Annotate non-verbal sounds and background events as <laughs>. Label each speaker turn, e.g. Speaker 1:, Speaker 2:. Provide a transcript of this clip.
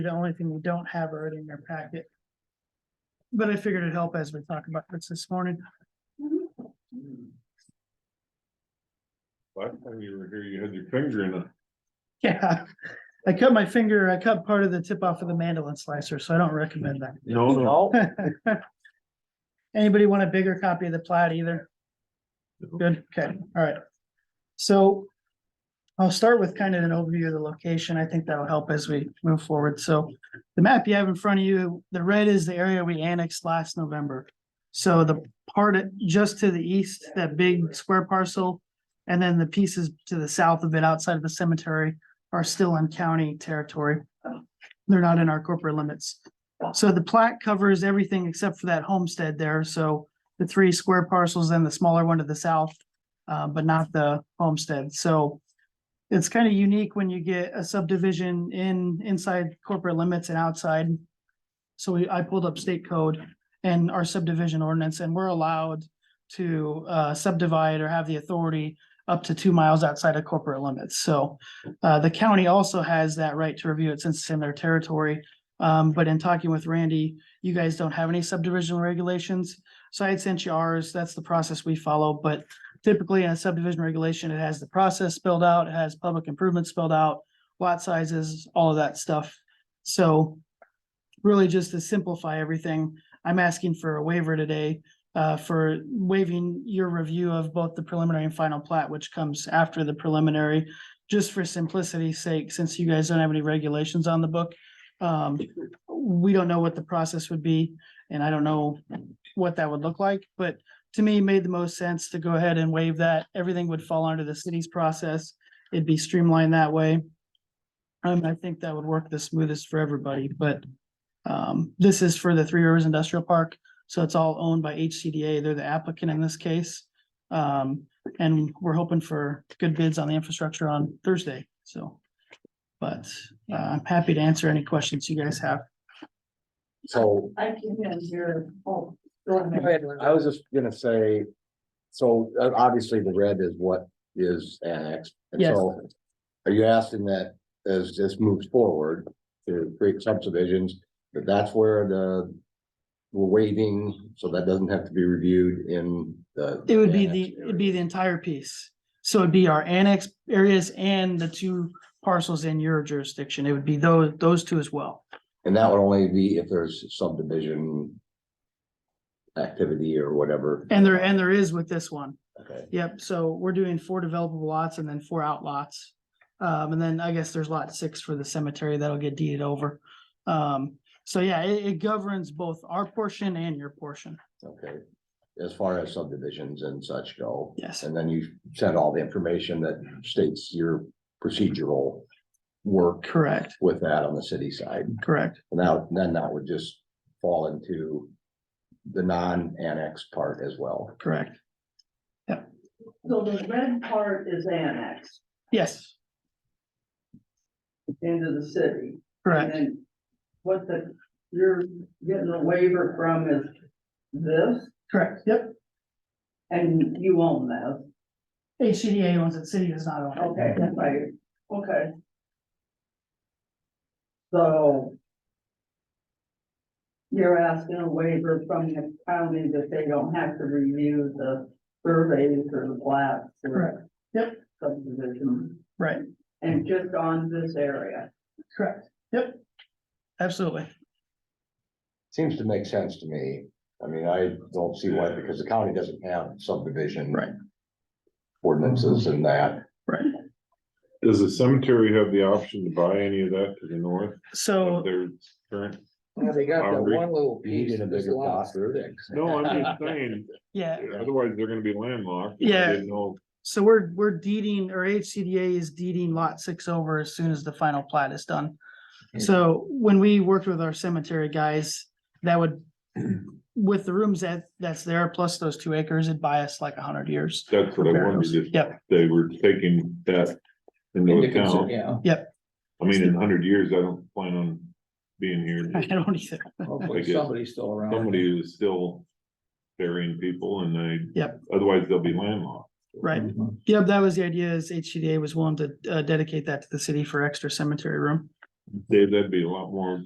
Speaker 1: The only thing we don't have already in our packet. But I figured it'd help as we talk about this this morning. <laughs>
Speaker 2: Last time you were here, you had your finger in it.
Speaker 1: Yeah, I cut my finger, I cut part of the tip off of the mandolin slicer, so I don't recommend that.
Speaker 2: No,
Speaker 3: No,
Speaker 1: <laughs> Anybody want a bigger copy of the plat either? Good, okay, all right. So I'll start with kind of an overview of the location. I think that'll help as we move forward. So the map you have in front of you, the red is the area we annexed last November. So the part at- just to the east, that big square parcel, and then the pieces to the south of it outside of the cemetery are still in county territory. They're not in our corporate limits. So the plat covers everything except for that homestead there, so the three square parcels and the smaller one to the south. Uh, but not the homestead, so. It's kind of unique when you get a subdivision in, inside corporate limits and outside. So we, I pulled up state code and our subdivision ordinance, and we're allowed to, uh, subdivide or have the authority. Up to two miles outside of corporate limits, so, uh, the county also has that right to review it since it's in their territory. Um, but in talking with Randy, you guys don't have any subdivision regulations. So I had sent you ours. That's the process we follow, but typically in a subdivision regulation, it has the process spelled out, it has public improvements spelled out, lot sizes, all of that stuff. So really just to simplify everything, I'm asking for a waiver today uh, for waiving your review of both the preliminary and final plat, which comes after the preliminary, just for simplicity's sake, since you guys don't have any regulations on the book. Um, we don't know what the process would be, and I don't know what that would look like, but to me, it made the most sense to go ahead and waive that. Everything would fall under the city's process. It'd be streamlined that way. Um, I think that would work the smoothest for everybody, but um, this is for the Three Rivers Industrial Park, so it's all owned by HCDA. They're the applicant in this case. Um, and we're hoping for good bids on the infrastructure on Thursday, so. But uh, I'm happy to answer any questions you guys have.
Speaker 3: so
Speaker 4: I can hear, oh.
Speaker 3: I was just gonna say, so uh, obviously the red is what is annexed. and
Speaker 1: Yes.
Speaker 3: so Are you asking that as this moves forward to create subdivisions, that that's where the we're waiting, so that doesn't have to be reviewed in the.
Speaker 1: It would be
Speaker 3: annexed
Speaker 1: the,
Speaker 3: area?
Speaker 1: it'd be the entire piece. So it'd be our annex areas and the two parcels in your jurisdiction. It would be those, those two as well.
Speaker 3: And that would only be if there's subdivision activity or whatever.
Speaker 1: And there, and there is with this one.
Speaker 3: Okay,
Speaker 1: Yep, so we're doing four developable lots and then four outlots. Um, and then I guess there's lot six for the cemetery that'll get deeded over. Um, so yeah, it, it governs both our portion and your portion.
Speaker 3: okay. As far as subdivisions and such go.
Speaker 1: Yes,
Speaker 3: And then you send all the information that states your procedural work
Speaker 1: correct,
Speaker 3: with that on the city side.
Speaker 1: correct.
Speaker 3: And Now, then that would just fall into the non-annex part as well.
Speaker 1: Correct.
Speaker 4: So the red part is annexed
Speaker 1: Yes,
Speaker 4: into the city.
Speaker 1: correct.
Speaker 4: And what the, you're getting a waiver from is this,
Speaker 1: Correct, yep.
Speaker 4: and you own this.
Speaker 1: HCDA owns it, city does not own it.
Speaker 4: Okay, right, okay. So you're asking a waiver from the county that they don't have to review the surveys or the plats or
Speaker 1: Correct. Yep.
Speaker 4: subdivision.
Speaker 1: Right.
Speaker 4: And just on this area.
Speaker 1: Correct, yep. Absolutely,
Speaker 3: Seems to make sense to me. I mean, I don't see why, because the county doesn't have subdivision.
Speaker 1: Right.
Speaker 3: Ordinances and that.
Speaker 1: right.
Speaker 2: Does the cemetery have the option to buy any of that to the north of
Speaker 1: So,
Speaker 2: their current?
Speaker 5: Yeah, they got that
Speaker 2: Boundary.
Speaker 5: one little
Speaker 3: You
Speaker 5: piece
Speaker 3: need a
Speaker 5: of this
Speaker 3: bigger
Speaker 5: lot.
Speaker 3: plot for it.
Speaker 2: No, I'm just saying,
Speaker 1: yeah,
Speaker 2: otherwise they're gonna be landlocked.
Speaker 1: Yeah.
Speaker 2: I didn't know,
Speaker 1: so we're, we're deeding, or HCDA is deeding lot six over as soon as the final plat is done. So when we worked with our cemetery guys, that would, with the rooms that, that's there, plus those two acres, it'd buy us like a hundred years.
Speaker 2: that's what I wondered, if
Speaker 1: Yep, <laughs>
Speaker 2: they were taking that into
Speaker 5: Into consi-
Speaker 2: account.
Speaker 5: Yeah,
Speaker 2: I mean, in a hundred years, I don't plan on being <laughs> here.
Speaker 1: I don't either,
Speaker 2: I
Speaker 5: hopefully
Speaker 2: guess
Speaker 5: somebody's still around.
Speaker 2: Somebody is still burying people and they.
Speaker 1: Yep.
Speaker 2: Otherwise they'll be landlocked.
Speaker 3: Mm-hmm.
Speaker 1: right? Yep, that was the idea is HCDA was willing to uh, dedicate that to the city for extra cemetery room.
Speaker 2: Dave, that'd be a lot more